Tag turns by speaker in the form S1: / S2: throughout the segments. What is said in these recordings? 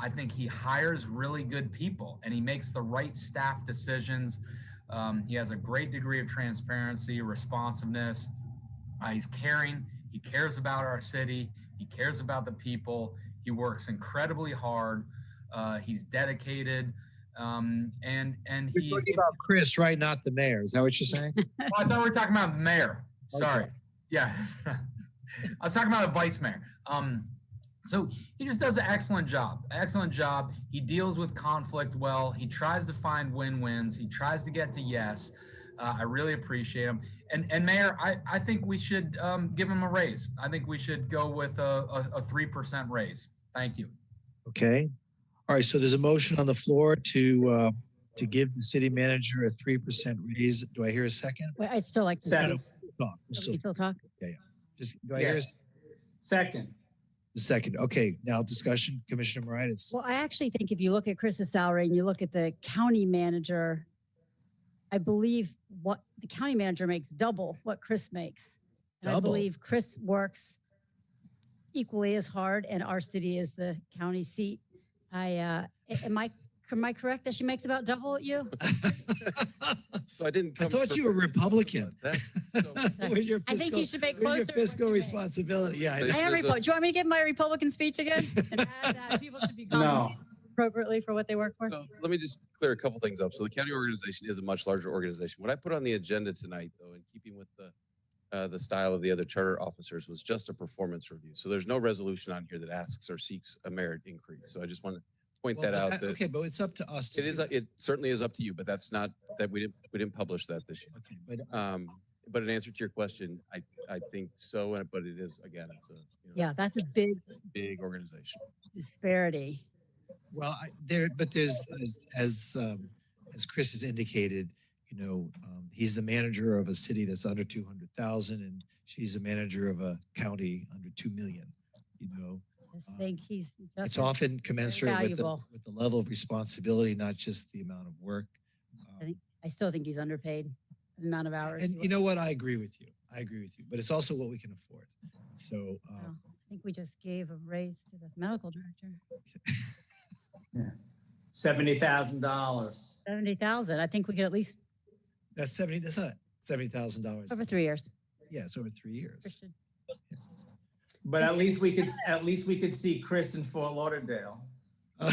S1: I think he hires really good people and he makes the right staff decisions. Um, he has a great degree of transparency, responsiveness. Uh, he's caring. He cares about our city. He cares about the people. He works incredibly hard. Uh, he's dedicated. Um, and and
S2: You're
S1: he's.
S2: talking about Chris, right? Not the mayor. Is that what you're saying?
S1: Oh, I thought we were talking about mayor. Sorry. Yeah. I was talking about a vice mayor. Um, so he just does an excellent job. Excellent job. He deals with conflict well. He tries to find win-wins. He tries to get to yes. Uh, I really appreciate him. And and mayor, I, I think we should um, give him a raise. I think we should go with a a three percent raise. Thank you.
S2: Okay. All right. So there's a motion on the floor to, uh, to give the city manager a 3% raise. Do I hear a second?
S3: Wait, I'd still like to. see-
S4: Second.
S2: Talk. We're
S3: Can we
S2: still-
S3: still talk?
S2: just- Do I hear a s-
S4: Second.
S2: a second? Okay. Now discussion, Commissioner Moritas.
S3: Well, I actually think if you look at Chris's salary and you look at the county manager, I believe what the county manager makes double what Chris makes. And I
S2: Double?
S3: believe Chris works equally as hard and our city is the county seat. I, uh, a- am I, am I correct that she makes about double what you?
S5: So I didn't.
S2: I
S5: come
S2: thought you were
S5: prepared.
S2: Republican.
S5: That's so-
S2: With your
S3: I think
S2: fiscal-
S3: you should make
S2: with your
S3: closer. to what
S2: fiscal
S3: you make.
S2: responsibility. Yeah. I
S5: They
S2: know.
S3: I am
S5: There's a-
S3: Republican. Do you want me to give my Republican speech again? And add that People should be
S4: No.
S3: compensated appropriately for what they work for?
S5: So let me just clear a couple things up. So the county organization is a much larger organization. What I put on the agenda tonight, though, in keeping with the uh, the style of the other charter officers, was just a performance review. So there's no resolution on here that asks or seeks a merit increase. So I just want to point
S2: Well,
S5: that
S2: but
S5: out.
S2: I-
S5: that
S2: Okay, but it's up to us. to
S5: it is.
S2: do
S5: uh, It certainly is up to you, but that's not that we didn't we didn't publish that this year.
S2: that. Okay, but
S5: Um, but in answer to your question, I I think so. and But it is again, it's a you know,
S3: Yeah, that's a big
S5: big organization.
S3: disparity.
S2: Well, I, there, but there's, as, as, um, as Chris has indicated, you know, um, he's the manager of a city that's under two hundred thousand and she's the manager of a county under two million. You know,
S3: I think he's just.
S2: it's often commensurate with the,
S3: valuable.
S2: with the level of responsibility, not just the amount of work. Um,
S3: think I still think he's underpaid for the amount of hours.
S2: And
S3: he
S2: you
S3: works.
S2: know what? I agree with you. I agree with you, but it's also what we can afford. So, um,
S3: Wow. I think we just gave a raise to the medical director,
S4: Seventy thousand dollars.
S3: seventy thousand. I think we could at least
S2: that's seventy, that's not seventy thousand dollars.
S3: over three years.
S2: Yeah, it's over three years.
S3: Christian.
S4: But at least we could, at least we could see Chris in Fort Lauderdale.
S3: Le-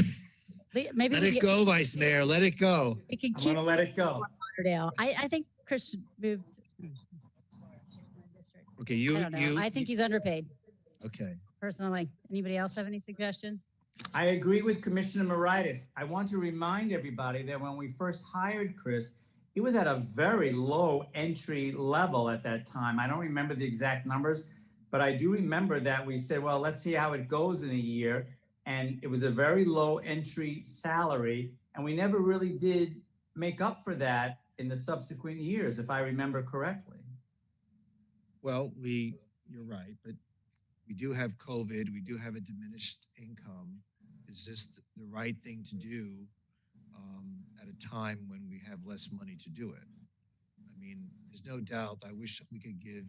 S3: Maybe
S2: Let
S3: we
S2: it
S3: could-
S2: go, Vice Mayor. Let it go.
S3: we can
S4: I'm
S3: keep
S4: gonna let it go.
S3: Lauderdale. I, I think Chris should move. to-
S2: Okay,
S3: I
S2: you,
S3: don't know.
S2: Hmm. you.
S3: I think he's underpaid
S2: Okay.
S3: personally. Anybody else have any suggestions?
S4: I agree with Commissioner Moritas. I want to remind everybody that when we first hired Chris, he was at a very low entry level at that time. I don't remember the exact numbers, but I do remember that we said, well, let's see how it goes in a year. And it was a very low entry salary. And we never really did make up for that in the subsequent years, if I remember correctly.
S2: Well, we, you're right, but we do have COVID. We do have a diminished income. Is this th- the right thing to do um, at a time when we have less money to do it? I mean, there's no doubt. I wish we could give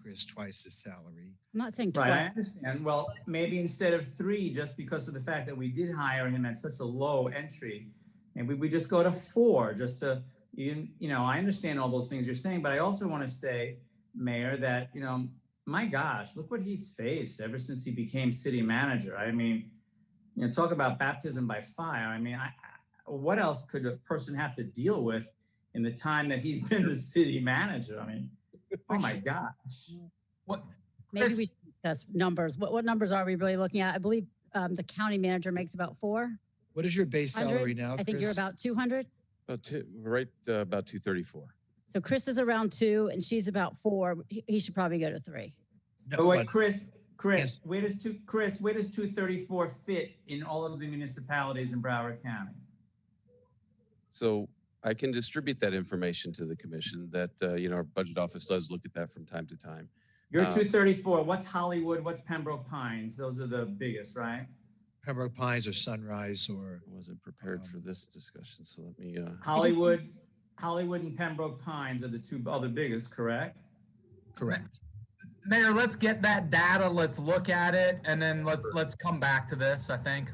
S2: Chris twice his salary.
S3: I'm not saying
S4: Right, I
S3: twice.
S4: understand. Well, maybe instead of three, just because of the fact that we did hire him at such a low entry, maybe we just go to four, just to, you, you know, I understand all those things you're saying, but I also want to say, Mayor, that, you know, my gosh, look what he's faced ever since he became city manager. I mean, you know, talk about baptism by fire. I mean, I, I- what else could a person have to deal with in the time that he's been the city manager? I mean, oh my gosh.
S1: What
S3: Maybe
S1: Chris-
S3: we should discuss numbers. What, what numbers are we really looking at? I believe, um, the county manager makes about four.
S2: What is your base
S3: 100?
S2: salary now,
S3: I think you're
S2: Chris?
S3: about two hundred.
S5: About two, right uh, about two thirty-four.
S3: So Chris is around two and she's about four. He, he should probably go to three.
S2: No,
S4: But wait,
S2: but-
S4: Chris,
S2: Yes.
S4: Chris, where does two, Chris, where does two thirty-four fit in all of the municipalities in Broward County?
S5: So I can distribute that information to the commission that, uh, you know, our budget office does look at that from time to time.
S4: You're
S5: Um,
S4: two thirty-four, what's Hollywood, what's Pembroke Pines, those are the biggest, right?
S2: Pembroke Pines or Sunrise or,
S5: I wasn't prepared for this discussion, so let me, uh,
S4: Hollywood, Hollywood and Pembroke Pines are the two other biggest, correct?
S2: correct.
S1: Mayor, let's get that data, let's look at it, and then let's let's come back to this, I think.